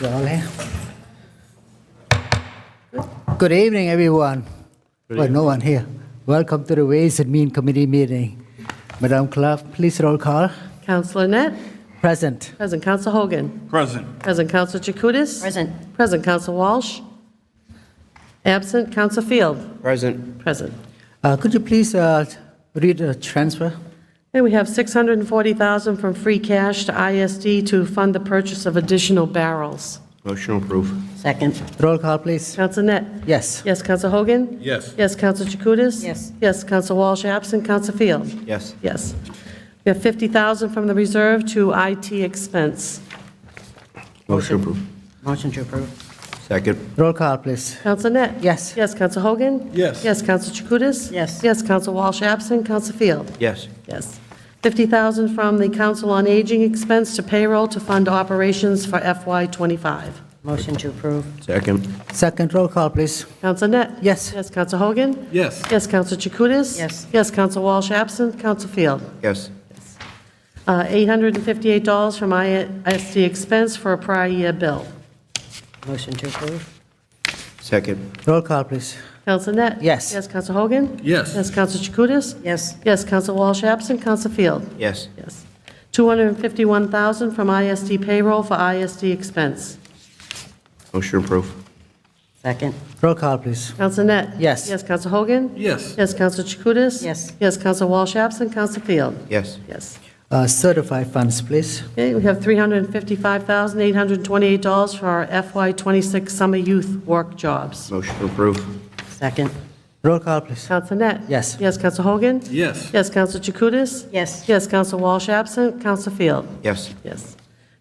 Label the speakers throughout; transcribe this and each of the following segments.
Speaker 1: Jolly. Good evening, everyone. Well, no one here. Welcome to the Ways and Mean Committee meeting. Madam Clerk, please roll call.
Speaker 2: Counselor Net.
Speaker 1: Present.
Speaker 2: Present Counsel Hogan.
Speaker 3: Present.
Speaker 2: Present Counsel Chakutis. Present. Present Counsel Walsh. Absent Counsel Field.
Speaker 4: Present.
Speaker 2: Present.
Speaker 1: Uh, Could you please uh, read the transfer?
Speaker 2: And we have 640000 from free cash to ISD to fund the purchase of additional barrels.
Speaker 4: Motion approved.
Speaker 5: Second.
Speaker 1: Roll call, please.
Speaker 2: Counsel Net.
Speaker 1: Yes.
Speaker 2: Yes, Counsel Hogan.
Speaker 3: Yes.
Speaker 2: Yes, Counsel Chakutis.
Speaker 5: Yes.
Speaker 2: Yes, Counsel Walsh, absent Counsel Field.
Speaker 4: Yes.
Speaker 2: Yes. We have 50000 from the reserve to IT expense.
Speaker 4: Motion approved.
Speaker 5: Motion to approve.
Speaker 4: Second.
Speaker 1: Roll call, please.
Speaker 2: Counsel Net.
Speaker 1: Yes.
Speaker 2: Yes, Counsel Hogan.
Speaker 3: Yes.
Speaker 2: Yes, Counsel Chakutis.
Speaker 5: Yes.
Speaker 2: Yes, Counsel Walsh, absent Counsel Field.
Speaker 4: Yes.
Speaker 2: Yes. 50000 from the Council on Aging expense to payroll to fund operations for FY25.
Speaker 5: Motion to approve.
Speaker 4: Second.
Speaker 1: Second roll call, please.
Speaker 2: Counsel Net.
Speaker 1: Yes.
Speaker 2: Yes, Counsel Hogan.
Speaker 3: Yes.
Speaker 2: Yes, Counsel Chakutis.
Speaker 5: Yes.
Speaker 2: Yes, Counsel Walsh, absent Counsel Field.
Speaker 4: Yes.
Speaker 2: Uh, $858 from ISD expense for a prior year bill.
Speaker 5: Motion to approve.
Speaker 4: Second.
Speaker 1: Roll call, please.
Speaker 2: Counsel Net?
Speaker 1: Yes.
Speaker 2: Yes, Counsel Hogan?
Speaker 3: Yes.
Speaker 2: Yes, Counsel Chakutis?
Speaker 5: Yes.
Speaker 2: Yes, Counsel Walsh absent, Counsel Field?
Speaker 4: Yes.
Speaker 2: Yes. 251000 from ISD payroll for ISD expense.
Speaker 4: Motion approved.
Speaker 5: Second.
Speaker 1: Roll call, please.
Speaker 2: Counsel Net?
Speaker 1: Yes.
Speaker 2: Yes, Counsel Hogan?
Speaker 3: Yes.
Speaker 2: Yes, Counsel Chakutis?
Speaker 5: Yes.
Speaker 2: Yes, Counsel Walsh absent, Counsel Field?
Speaker 4: Yes.
Speaker 2: Yes.
Speaker 1: Uh, Certify funds, please.
Speaker 2: Okay, we have $355,828 for our FY26 summer youth work jobs.
Speaker 4: Motion approved.
Speaker 5: Second.
Speaker 1: Roll call, please.
Speaker 2: Counsel Net?
Speaker 1: Yes.
Speaker 2: Yes, Counsel Hogan?
Speaker 3: Yes.
Speaker 2: Yes, Counsel Chakutis?
Speaker 5: Yes.
Speaker 2: Yes, Counsel Walsh absent, Counsel Field?
Speaker 4: Yes.
Speaker 2: Yes.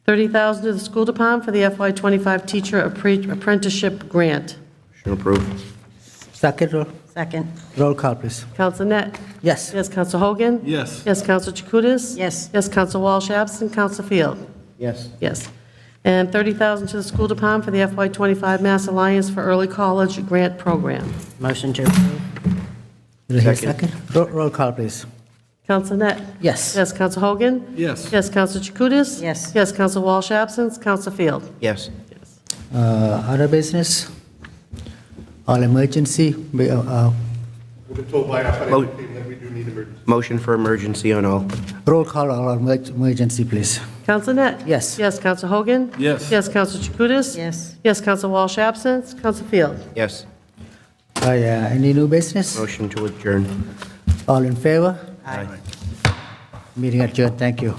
Speaker 2: 30000 to the school department for the FY25 teacher appre- apprenticeship grant.
Speaker 4: Motion approved.
Speaker 1: Second roll,
Speaker 5: Second.
Speaker 1: roll call, please.
Speaker 2: Counsel Net?
Speaker 1: Yes.
Speaker 2: Yes, Counsel Hogan?
Speaker 3: Yes.
Speaker 2: Yes, Counsel Chakutis?
Speaker 5: Yes.
Speaker 2: Yes, Counsel Walsh, absent, Counsel Field?
Speaker 4: Yes.
Speaker 2: Yes. And 30000 to the school department for the FY25 Mass Alliance for Early College Grant Program.
Speaker 5: Motion to approve.
Speaker 1: Did I hear
Speaker 4: Second.
Speaker 1: second? Roll, roll call, please.
Speaker 2: Counsel Net?
Speaker 1: Yes.
Speaker 2: Yes, Counsel Hogan?
Speaker 3: Yes.
Speaker 2: Yes, Counsel Chakutis?
Speaker 5: Yes.
Speaker 2: Yes, Counsel Walsh, absent, Counsel Field?
Speaker 4: Yes.
Speaker 1: Uh, Other business? All emergency? we, uh, uh,
Speaker 6: We've been told by our
Speaker 4: Mo-
Speaker 6: financial team that we do need emergency
Speaker 4: Motion for emergency on all.
Speaker 1: Roll call all emer- emergency, please.
Speaker 2: Counsel Net?
Speaker 1: Yes.
Speaker 2: Yes, Counsel Hogan?
Speaker 3: Yes.
Speaker 2: Yes, Counsel Chakutis?
Speaker 5: Yes.
Speaker 2: Yes, Counsel Walsh, absent, Counsel Field?
Speaker 4: Yes.
Speaker 1: Uh, yeah, Any new business?
Speaker 4: Motion to adjourn.
Speaker 1: All in favor? Meeting adjourned, thank you.